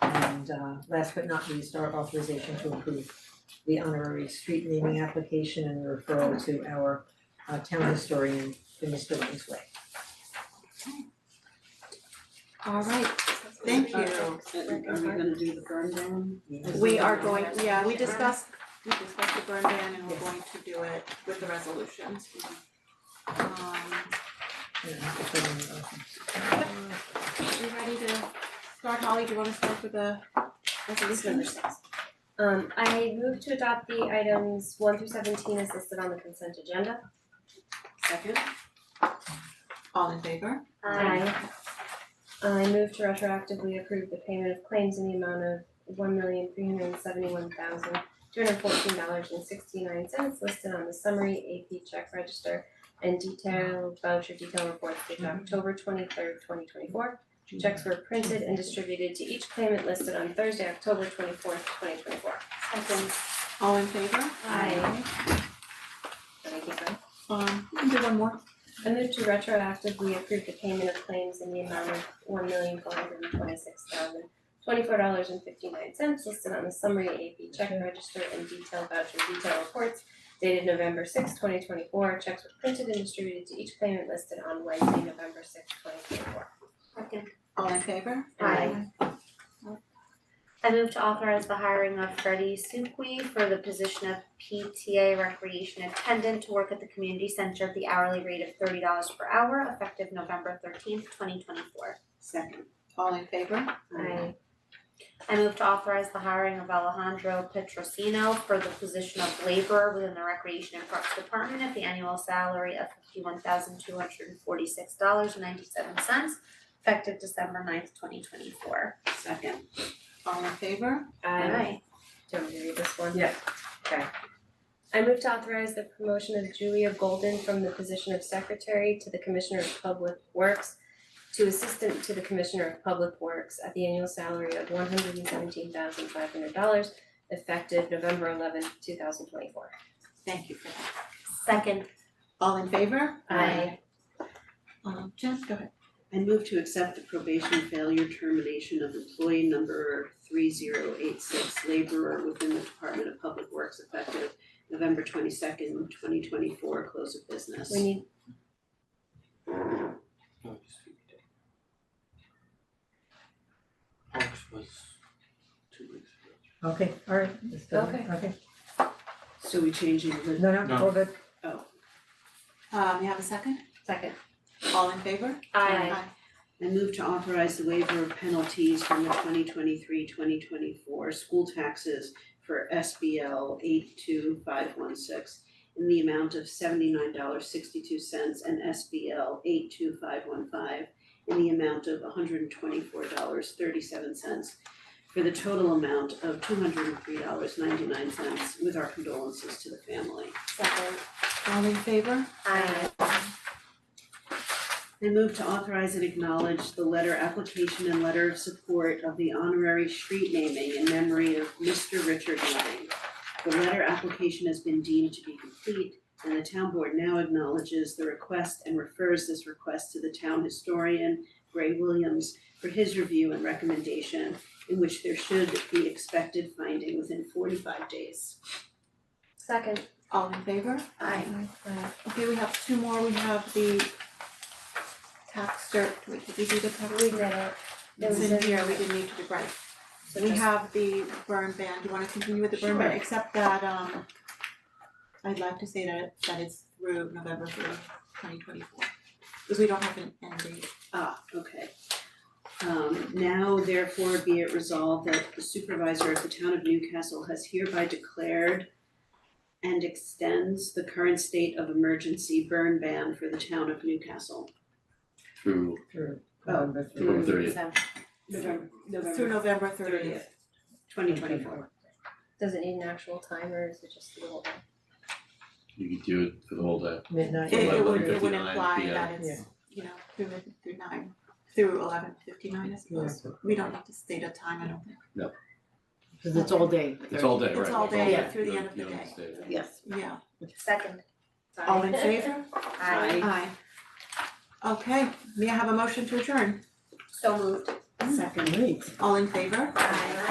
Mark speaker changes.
Speaker 1: And uh last but not least, our authorization to approve the honorary street naming application and referral to our uh town historian for Mr. Langsway.
Speaker 2: All right, thank you.
Speaker 3: Are we gonna do the burn down?
Speaker 2: We are going, yeah, we discussed, we discussed the burn ban and we're going to do it with the resolutions. Um,
Speaker 1: Yeah, I have to put in, uh,
Speaker 2: you ready to start, Holly, do you wanna start with the resolution?
Speaker 4: Um, I move to adopt the items one through seventeen as listed on the consent agenda.
Speaker 3: Second?
Speaker 2: All in favor?
Speaker 4: Aye. I move to retroactively approve the payment of claims in the amount of one million three hundred and seventy-one thousand two hundred fourteen dollars and sixty-nine cents listed on the summary AP check register and detailed voucher detail reports dated October twenty-third, twenty twenty-four. Checks were printed and distributed to each claimant listed on Thursday, October twenty-fourth, twenty twenty-four.
Speaker 2: All in favor?
Speaker 4: Aye. Let me keep going.
Speaker 2: Um, you can do one more.
Speaker 4: I move to retroactively approve the payment of claims in the amount of one million four hundred and twenty-six thousand twenty-four dollars and fifty-nine cents listed on the summary AP check register and detailed voucher detail reports dated November sixth, twenty twenty-four. Checks were printed and distributed to each claimant listed on Wednesday, November sixth, twenty twenty-four.
Speaker 2: All in favor?
Speaker 5: Aye. I move to authorize the hiring of Freddie Sukwe for the position of PTA recreation attendant to work at the community center at the hourly rate of thirty dollars per hour effective November thirteenth, twenty twenty four.
Speaker 2: Second. All in favor?
Speaker 4: Aye.
Speaker 5: I move to authorize the hiring of Alejandro Petrosino for the position of laborer within the recreation and parks department at the annual salary of fifty one thousand two hundred and forty six dollars and ninety seven cents effective December ninth, twenty twenty four.
Speaker 3: Second.
Speaker 2: All in favor?
Speaker 4: Do you want me to read this one?
Speaker 1: Yeah.
Speaker 4: Okay. I move to authorize the promotion of Julia Golden from the position of secretary to the Commissioner of Public Works to assistant to the Commissioner of Public Works at the annual salary of one hundred and seventeen thousand five hundred dollars effective November eleventh, two thousand twenty-four.
Speaker 2: Thank you for that.
Speaker 5: Second.
Speaker 2: All in favor?
Speaker 4: Aye.
Speaker 2: Um, Jen, go ahead.
Speaker 3: I move to accept the probation failure termination of employee number three zero eight six laborer within the Department of Public Works effective November twenty second, twenty twenty four, close of business.
Speaker 4: We need,
Speaker 6: August we did. August was two weeks ago.
Speaker 1: Okay, alright, let's do it.
Speaker 4: Okay.
Speaker 1: okay,
Speaker 3: So we changing the,
Speaker 1: no, no,
Speaker 6: No.
Speaker 1: all good,
Speaker 3: oh,
Speaker 2: Um, you have a second?
Speaker 4: second.
Speaker 2: All in favor?
Speaker 5: Aye.
Speaker 3: I move to authorize the waiver of penalties from the 2023-2024 school taxes for SBL eight two five one six in the amount of seventy-nine dollars sixty-two cents and SBL eight two five one five in the amount of hundred and twenty-four dollars thirty-seven cents for the total amount of two hundred and three dollars ninety-nine cents with our condolences to the family.
Speaker 5: Second.
Speaker 2: All in favor?
Speaker 5: Aye.
Speaker 3: I move to authorize and acknowledge the letter application and letter of support of the honorary street naming in memory of Mr. Richard Loving. The letter application has been deemed to be complete and the town board now acknowledges the request and refers this request to the town historian Gray Williams for his review and recommendation in which there should be expected finding within forty-five days.
Speaker 4: Second.
Speaker 2: All in favor?
Speaker 5: Aye.
Speaker 2: Okay, we have two more, we have the tax cert, we did we do the tax?
Speaker 4: We did it. It
Speaker 2: It's
Speaker 4: was
Speaker 2: in
Speaker 4: in-
Speaker 2: here, we didn't need to do right.
Speaker 4: So
Speaker 2: We
Speaker 4: just-
Speaker 2: have the burn ban, do you wanna continue with the burn ban,
Speaker 3: Sure.
Speaker 2: except that um I'd like to say that that it's through November through twenty twenty four, because we don't have an end date.
Speaker 3: Ah, okay. Um, now therefore be it resolved that the supervisor of the town of Newcastle has hereby declared and extends the current state of emergency burn ban for the town of Newcastle.
Speaker 6: Through
Speaker 1: through
Speaker 3: Oh,
Speaker 1: November through.
Speaker 6: November thirtieth.
Speaker 4: So,
Speaker 3: November,
Speaker 2: Through November thirtieth.
Speaker 3: thirtieth, twenty twenty four.
Speaker 4: does it need an actual time or is it just a little?
Speaker 6: You could do it for the whole day.
Speaker 1: Midnight.
Speaker 2: It it would it would
Speaker 6: 11:59
Speaker 2: imply
Speaker 6: PM.
Speaker 2: that it's, you know, through through nine, through eleven fifty nine, I suppose. We don't need to state a time, I don't think,
Speaker 7: Cause it's all day.
Speaker 6: It's all day, right?
Speaker 2: It's all
Speaker 6: Like,
Speaker 2: day through the end of the
Speaker 6: you don't
Speaker 2: day.
Speaker 6: stay there.
Speaker 3: Yes.
Speaker 2: yeah,
Speaker 5: Second. Sorry.
Speaker 2: all in favor?
Speaker 5: Aye.
Speaker 2: Aye. Okay, may I have a motion to adjourn?
Speaker 5: So moved.
Speaker 3: Second.
Speaker 1: Great.
Speaker 2: All in favor?
Speaker 5: Aye.